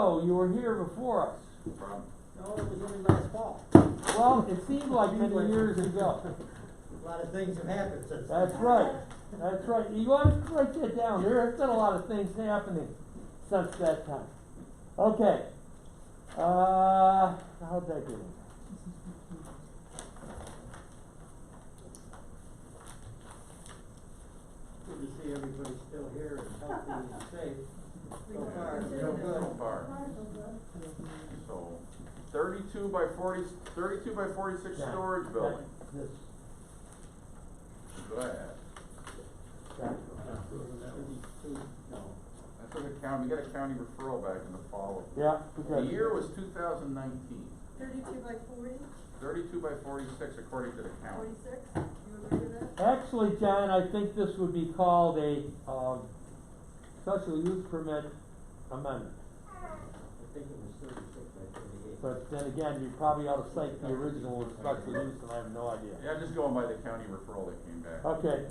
Oh, you were here before us. From, No, it was only last fall. Well, it seemed like many years ago. A lot of things have happened since then. That's right, that's right. You want to write that down. There have been a lot of things happening since that time. Okay. Uh, how'd that get in? Good to see everybody's still here and healthy and safe. So far, so so good. far, so, thirty-two by forty, thirty-two by forty-six That- storage that- building, This, is what I had. that, Thirty-two, no. That's what the county, we got a county referral back in the fall. yeah, The because. year was two thousand nineteen, Thirty-two by forty, thirty-two by forty-six according to the county. forty-six, you agree with that? Actually, John, I think this would be called a, um, special use permit amendment. I think it was thirty-six by thirty-eight. But then again, you probably ought to cite the original as special use, and I have no idea. Yeah, I'm just going by the county referral that came back. Okay.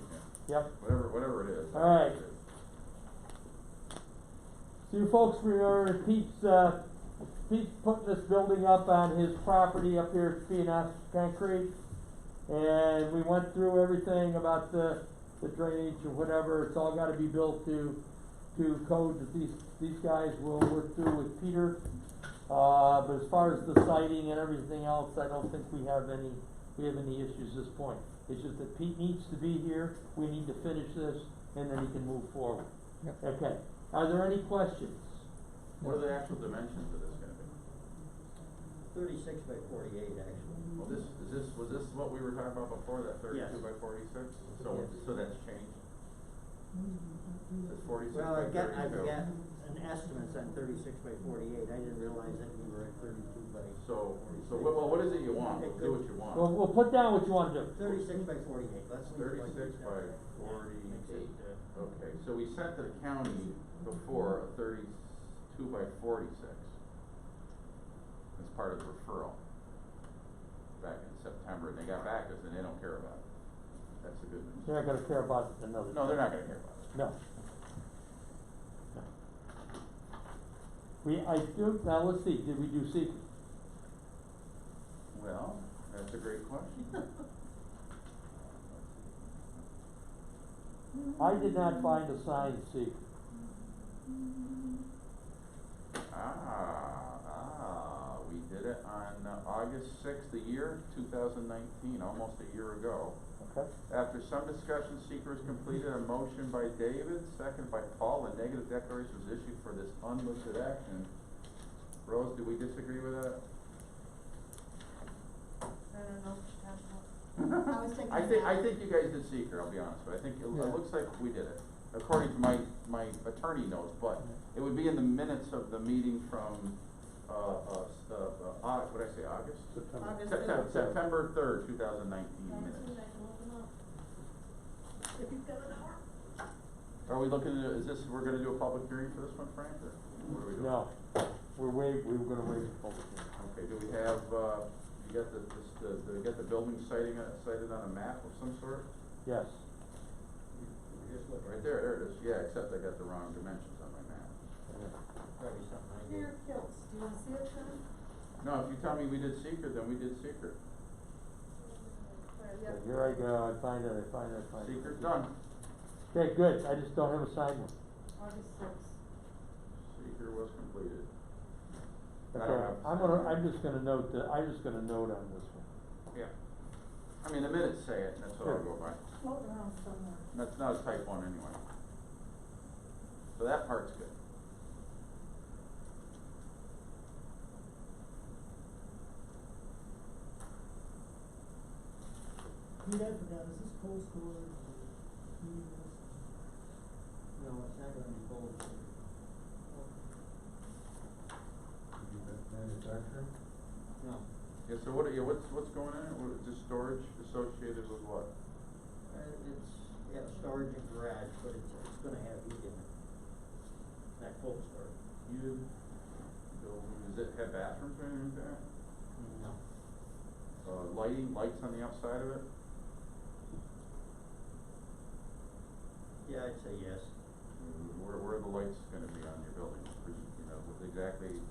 Yeah. Yep. Whatever, whatever it is. All right. So you folks remember Pete's, uh, Pete's putting this building up on his property up here at P and S Concrete. And we went through everything about the, the drainage or whatever, it's all gotta be built to, to code that these, these guys will work through with Peter. Uh, but as far as the siding and everything else, I don't think we have any, we have any issues at this point. It's just that Pete needs to be here, we need to finish this, and then he can move forward. Okay, are there any questions? What are the actual dimensions of this gonna be? Thirty-six by forty-eight, actually. Well, this, is this, was this what we were talking about before, that thirty-two Yes. by forty-six? So, Yes. so that's changed? It's forty-six by Well, I thirty-two. got, I've got an estimate on thirty-six by forty-eight. I didn't realize that we were at thirty-two by. So, so what, well, what is it you want? We'll do what you Well, want. we'll put down what you wanna do. Thirty-six by forty-eight, let's leave it like Thirty-six by that. forty-eight. uh, Okay, so we sent to the county before a thirty-two by forty-six. As part of the referral. Back in September, and they got back to us and they don't care about it. That's the good They're news. not gonna care about it another. No, they're not gonna care about it. No. No. We, I do, now let's see, did we do secret? Well, that's a great question. I did not find a signed secret. Ah, ah, we did it on uh, August sixth, the year two thousand nineteen, almost a year ago. Okay. After some discussion, seeker is completed, a motion by David, second by Paul, a negative declaration was issued for this unlisted action. Rose, do we disagree with that? I don't know, what you're talking about. I was thinking think, I that. think you guys did seeker, I'll be honest, but I think it, it Yeah. looks like we did it, according to my, my attorney notes, but it would be in the minutes of the meeting from, uh, uh, s- uh, uh, Au- what'd I say, August? August September, fifth. September third, two thousand nineteen That's minutes. it, I can look them up. If you've got an hour. Are we looking at, is this, we're gonna do a public hearing for this one, Frank, or what are we doing? No, we're waiting, we were gonna wait for public hearing. Okay, do we have, uh, you got the, this, the, do we got the building sighting, uh, sighted on a map of some sort? Yes, We're just looking. Right there, there it is, yeah, except I got the wrong dimensions on my map. Probably something I did. Here, kilts, do you wanna see it, John? No, if you tell me we did secret, then we did secret. Okay, Where, yeah. here I go, I find it, I find it, I find it. Secret done. Okay, good, I just don't have a signed one. August sixth. Secret was completed. I don't Okay, have a I'm gonna, signed I'm just gonna note that, I'm just gonna note on this one. Yeah. I mean, the minutes say it, and that's what I'll Sure. go by. Floating around somewhere. That's not a type one anyway. So that part's good. Pete, I forgot, is this cold storage or heating this? No, it's not gonna be cold. Manufacturing? No, Yeah, so what, are- yeah, what's, what's going on? What, just storage associated with what? Uh, it's, yeah, storage and garage, but it's, it's gonna have heat in it. It's not cold storage. You, building, does it have bathrooms or anything like that? No. Uh, lighting, lights on the outside of it? Yeah, I'd say yes. Mm-hmm. Where, where are the lights gonna be on your building? Or, You know, would they exactly